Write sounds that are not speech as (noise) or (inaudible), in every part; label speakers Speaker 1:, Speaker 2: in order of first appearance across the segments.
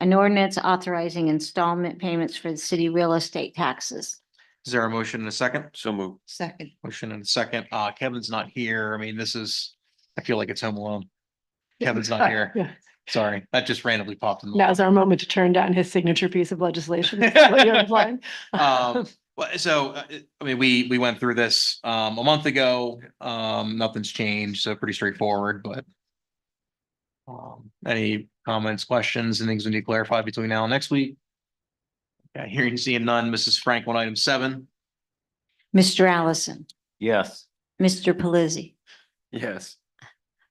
Speaker 1: an ordinance authorizing installment payments for the city real estate taxes.
Speaker 2: Is there a motion and a second?
Speaker 3: So move.
Speaker 4: Second.
Speaker 2: Motion and a second. Uh, Kevin's not here. I mean, this is, I feel like it's home alone. Kevin's not
Speaker 5: (laughs)
Speaker 2: here.
Speaker 5: Yeah,
Speaker 2: Sorry, that just randomly popped in.
Speaker 5: now's our moment to turn down his signature piece of legislation. Is that what you're implying?
Speaker 2: Um, Well, so, uh, it- I mean, we, we went through this, um, a month ago, um, nothing's changed, so pretty straightforward, but. Um, any comments, questions, and things we need to clarify between now and next week? Okay, hearing, seeing none, Mrs. Frank on item seven,
Speaker 1: Mr. Allison,
Speaker 3: Yes.
Speaker 1: Mr. Pelisi,
Speaker 3: Yes.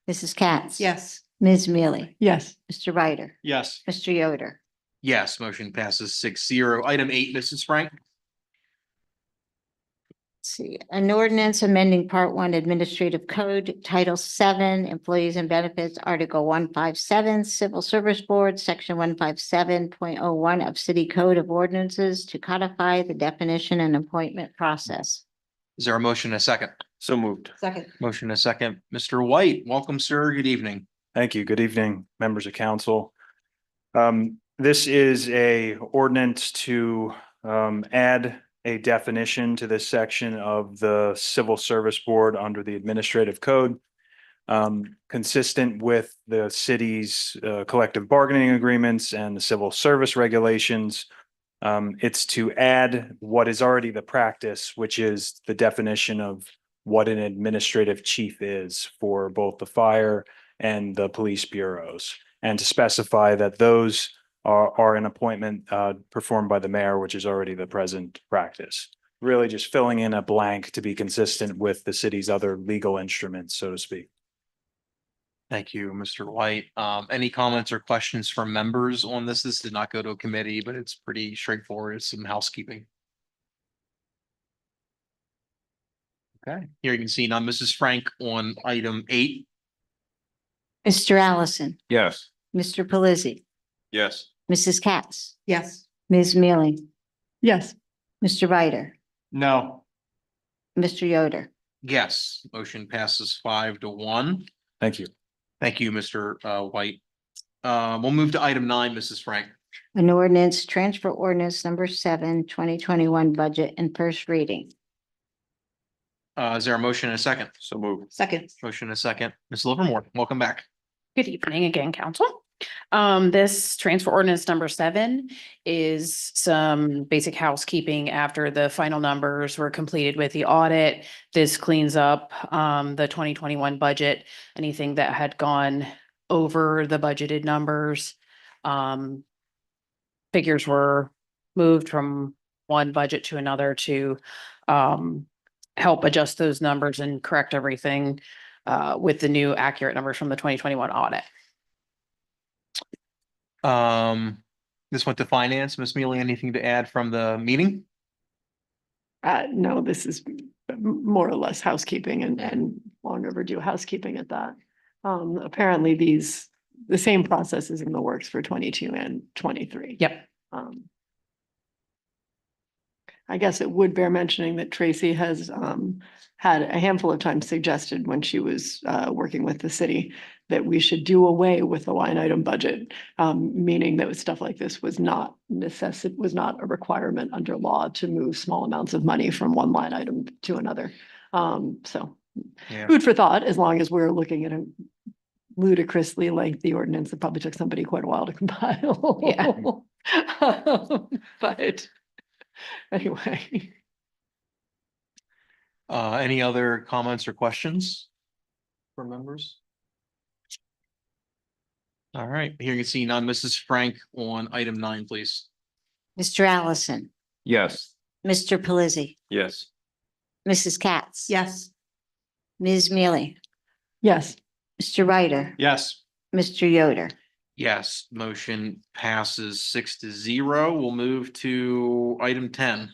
Speaker 1: Mrs.
Speaker 4: (laughs)
Speaker 1: Katz.
Speaker 4: Yes.
Speaker 1: Ms. Mealy,
Speaker 5: Yes,
Speaker 1: Mr. Ryder,
Speaker 2: yes,
Speaker 1: Mr. Yoder.
Speaker 2: yes, motion passes six zero, item eight, Mrs. Frank,
Speaker 1: Let's See, an ordinance amending Part One Administrative Code, Title Seven, Employees and Benefits, Article one five seven, Civil Service Board, Section one five seven point oh one of City Code of Ordinances to codify the definition and appointment process.
Speaker 2: is there a motion and a second?
Speaker 3: So moved.
Speaker 4: Second.
Speaker 2: Motion and a second, Mr. White, welcome, sir, good evening.
Speaker 6: Thank you. Good evening, members of council. Um, this is a ordinance to um add a definition to this section of the Civil Service Board under the Administrative Code. um, consistent with the city's uh, collective bargaining agreements and the civil service regulations. Um, it's to add what is already the practice, which is the definition of what an administrative chief is for both the fire and the police bureaus. And to specify that those are, are an appointment uh, performed by the mayor, which is already the present practice. Really just filling in a blank to be consistent with the city's other legal instruments, so to speak.
Speaker 2: Thank you, Mr. White. Um, any comments or questions from members on this? This did not go to a committee, but it's pretty straightforward. It's some housekeeping. Okay, here you can see now Mrs. Frank on item eight.
Speaker 1: Mr. Allison,
Speaker 3: Yes.
Speaker 1: Mr. Pelisi,
Speaker 3: Yes.
Speaker 1: Mrs. Katz,
Speaker 4: Yes.
Speaker 1: Ms. Mealy,
Speaker 5: yes,
Speaker 1: Mr. Ryder,
Speaker 2: No.
Speaker 1: Mr. Yoder.
Speaker 2: Yes, motion passes five to one.
Speaker 6: Thank you.
Speaker 2: Thank you, Mr. uh, White. Uh, we'll move to item nine, Mrs. Frank.
Speaker 1: An ordinance, transfer ordinance number seven, 2021 budget and first reading.
Speaker 2: Uh, is there a motion and a second?
Speaker 3: So moved.
Speaker 4: Second.
Speaker 2: Motion and a second. Ms. Livermore, welcome back.
Speaker 7: Good evening again, council. Um, this transfer ordinance number seven is some basic housekeeping after the final numbers were completed with the audit. This cleans up, um, the twenty twenty-one budget, anything that had gone over the budgeted numbers. Um, figures were moved from one budget to another to, um, help adjust those numbers and correct everything uh, with the new accurate numbers from the twenty twenty-one audit.
Speaker 2: Um, this went to finance. Ms. Mealy, anything to add from the meeting?
Speaker 5: uh, no, this is m- more or less housekeeping and, and long overdue housekeeping at that. Um, apparently these, the same process is in the works for twenty-two and twenty-three.
Speaker 7: Yep.
Speaker 5: Um. I guess it would bear mentioning that Tracy has um had a handful of times suggested when she was uh working with the city. That we should do away with the line item budget, um meaning that stuff like this was not necessit, was not a requirement under law to move small amounts of money from one line item to another. Um, so
Speaker 2: Yeah.
Speaker 5: food for thought, as long as we're looking at a ludicrously lengthy ordinance that probably took somebody quite a while to (laughs) compile. (laughs) Yeah. But anyway,
Speaker 2: Uh, any other comments or questions? From members? All right, here you can see none. Mrs. Frank on item nine, please.
Speaker 1: Mr. Allison,
Speaker 3: Yes.
Speaker 1: Mr. Pelisi,
Speaker 3: Yes.
Speaker 1: Mrs. Katz.
Speaker 4: Yes.
Speaker 1: Ms. Mealy,
Speaker 5: yes,
Speaker 1: Mr. Ryder,
Speaker 2: Yes.
Speaker 1: Mr. Yoder.
Speaker 2: Yes, motion passes six to zero. We'll move to item ten.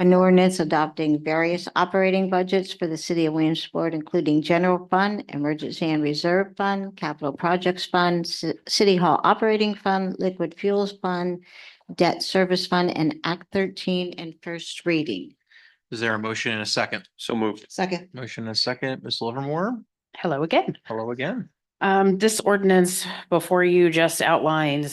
Speaker 1: An ordinance adopting various operating budgets for the city of Williamsport, including general fund, emergency and reserve fund, capital projects fund, ci- city hall operating fund, liquid fuels fund, debt service fund, and act thirteen and first reading.
Speaker 2: Is there a motion and a second?
Speaker 3: So moved.
Speaker 4: Second.
Speaker 2: Motion and a second, Ms. Livermore,
Speaker 7: Hello again.
Speaker 2: hello again.
Speaker 7: Um, this ordinance before you just outlines